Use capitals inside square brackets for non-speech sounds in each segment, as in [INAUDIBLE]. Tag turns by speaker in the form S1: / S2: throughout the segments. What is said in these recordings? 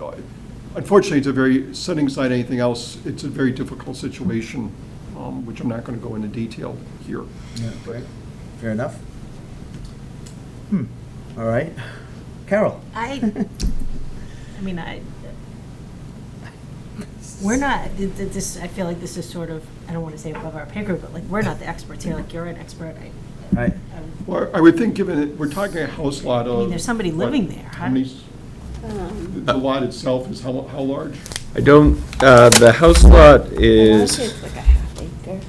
S1: uh, unfortunately, it's a very, setting aside anything else, it's a very difficult situation, um, which I'm not going to go into detail here.
S2: Yeah, okay. Fair enough. Hmm, all right. Carol? [LAUGHS]
S3: I, I mean, I, we're not, th- th- this, I feel like this is sort of, I don't want to say above our pay grade, but like, we're not the experts here, like, you're an expert. I- um,
S2: Right.
S3: I'm-
S1: Well, I would think, given, it- we're talking a house lot of.
S3: I mean, there's somebody living there,
S1: How
S3: huh?
S1: many s- The lot itself is how, how large?
S4: I don't, uh, the house lot is,
S5: It's like a half acre.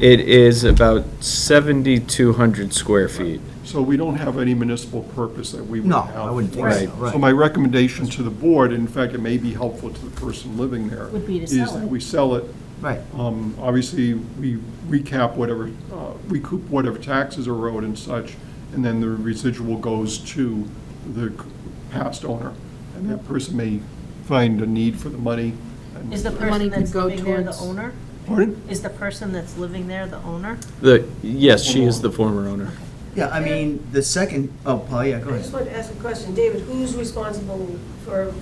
S4: it is about 7,200 square feet.
S1: So we don't have any municipal purpose that we would
S2: No,
S1: have.
S2: I wouldn't think
S1: for
S2: so,
S1: it.
S2: right.
S1: So my recommendation to the board, and in fact, it may be helpful to the person living there.
S3: Would be to
S1: Is
S3: sell
S1: that
S3: it.
S1: we sell it.
S2: Right.
S1: Um, Obviously, we recap whatever, uh, recoup whatever taxes are owed and such, and then the residual goes to the c- past owner. And that person may find a need for the money. and-
S3: Is the
S6: money
S3: person
S6: could
S3: that's
S6: go
S3: living there the
S6: towards-
S3: owner?
S1: Pardon?
S3: Is the person that's living there the owner?
S4: The, yes, she is the former owner.
S2: Yeah, I mean, the second, oh, Paul, yeah, go
S7: I just
S2: ahead.
S7: want to ask a question. David, who's responsible for,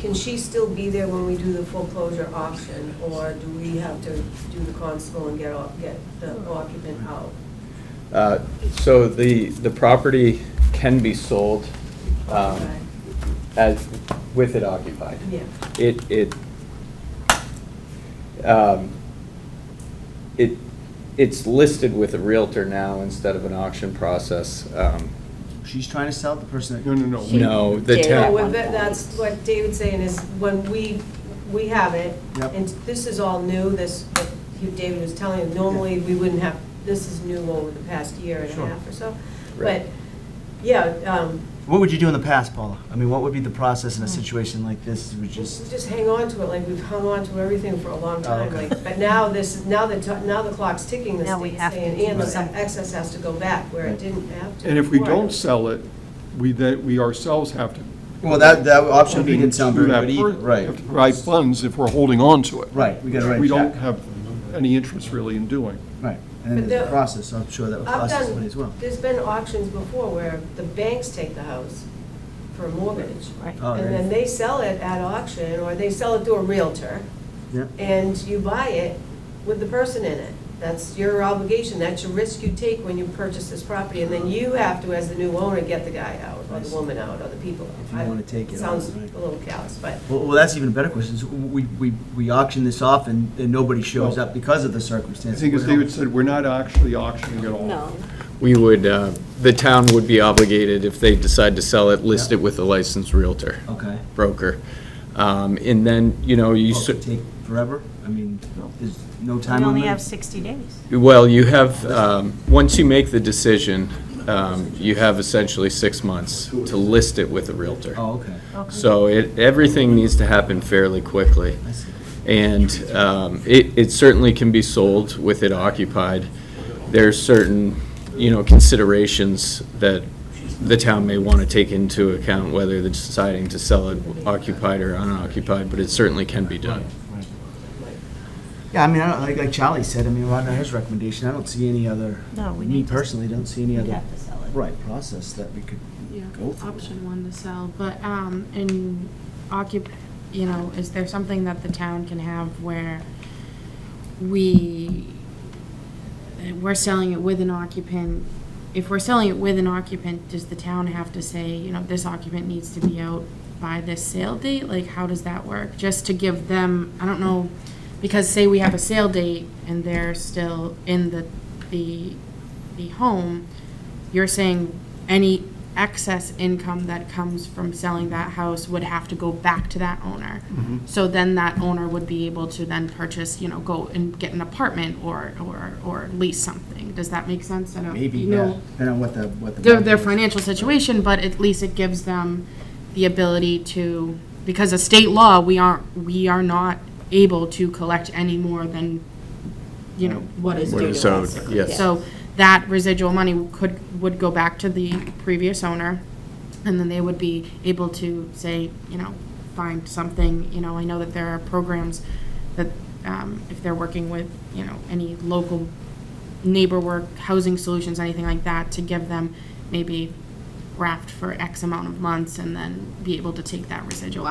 S7: can she still be there when we do the foreclosure auction? Or do we have to do the constable and get, off- get the occupant out?
S4: Uh, So the, the property can be sold um,
S7: Okay.
S4: as, with it occupied.
S7: Yeah.
S4: It, it, um, it, it's listed with a Realtor now instead of an auction process. um,
S2: She's trying to sell the person
S1: No,
S2: that,
S1: no, no.
S5: She-
S4: No, the
S5: did
S4: town.
S5: at
S7: No,
S5: one
S7: what-
S5: point.
S7: that's what David's saying is when we, we have it,
S2: Yep.
S7: and this is all new, this, what you- David was telling you, normally we wouldn't have, this is new over the past year and a
S2: Sure.
S7: half or so.
S4: Right.
S7: But, yeah, um,
S2: what would you do in the past, Paula? I mean, what would be the process in a situation like this? Would
S7: We
S2: just,
S7: Hmm. Just hang on to it, like we've hung on to everything for a long time,
S2: okay.
S7: like, but now this, now the, ti- now the clock's ticking, the
S3: Now we
S7: state's
S3: have to
S7: saying,
S3: do
S7: and the
S3: something.
S7: excess has to go back where
S2: Right.
S7: it didn't have to.
S1: And if we
S7: before.
S1: don't sell it, we then, we ourselves have to.
S2: well, that, that option B
S1: funding
S2: didn't sound
S1: to
S2: very
S1: that
S2: good
S1: per-
S2: either, right?
S1: have to Provide funds if we're holding on to it.
S2: Right, we gotta write a
S1: We don't
S2: check.
S1: have any interest really in doing.
S2: Right, and then
S7: But
S2: there's a
S7: the-
S2: process, so I'm sure that would
S7: I've
S2: process money as well.
S7: done, there's been auctions before where the banks take the house for a mortgage.
S3: Right.
S2: Oh,
S7: And
S2: yeah.
S7: then they sell it at auction, or they sell it to a Realtor,
S2: Yeah,
S7: and you buy it with the person in it. That's your obligation, that's your risk you take when you purchase this property, and then you have to, as the new owner, get the guy out, or the woman out, or the people out.
S2: If you wanna take it
S7: Sounds
S2: out,
S7: a
S2: right.
S7: little callous, but,
S2: well, well, that's even a better question, is we, we, we auction this off and, and nobody shows
S1: Well,
S2: up because of the
S1: I
S2: circumstances.
S1: think as
S2: What else?
S1: David said, we're not actually auctioning it off.
S5: No,
S4: We would, uh, the town would be obligated, if they decide to sell it, list
S2: Yeah.
S4: it with a licensed Realtor,
S2: Okay.
S4: broker. Um, And then, you know, you,
S2: Well,
S4: cer-
S2: it could Oh, take forever? I mean, there's no time
S3: We
S2: limit?
S3: only have 60 days.
S4: well, you have, um, once you make the decision, um, you have essentially six months to list it with a Realtor.
S2: Oh, okay,
S3: Okay.
S4: So it, everything needs to happen fairly quickly.
S2: I see.
S4: And um, it, it certainly can be sold with it occupied. There's certain, you know, considerations that the town may want to take into account, whether they're deciding to sell it occupied or unoccupied, but it certainly can be done.
S2: Yeah, I mean, I don't, like, like Charlie said, I mean, right now his recommendation, I don't see any other,
S3: No, we
S2: me
S3: need to-
S2: personally, don't see any
S3: We
S2: other,
S3: have to sell it.
S2: right, process that we could
S6: Yeah,
S2: go through.
S6: option one to sell, but, um, and occup, you know, is there something that the town can have where we, we're selling it with an occupant? If we're selling it with an occupant, does the town have to say, you know, this occupant needs to be out by this sale date? Like, how does that work? Just to give them, I don't know, because say we have a sale date and they're still in the, the, the home, you're saying any excess income that comes from selling that house would have to go back to that owner. So then that owner would be able to then purchase, you know, go and get an apartment or, or, or lease something. Does that make sense? I don't,
S2: Maybe,
S6: you
S2: yeah,
S6: know,
S2: depending on what the, what the.
S6: their, their
S2: market is.
S6: financial situation, but at least it gives them the ability to, because of state law, we aren't, we are not able to collect any more than, you know, what is
S4: What
S6: due
S4: is
S6: to us.
S4: owed, yes.
S6: So that residual money could, would go back to the previous owner, and then they would be able to say, you know, find something, you know, I know that there are programs that, um, if they're working with, you know, any local neighbor work, housing solutions, anything like that, to give them maybe raft for X amount of months, and then be able to take that residual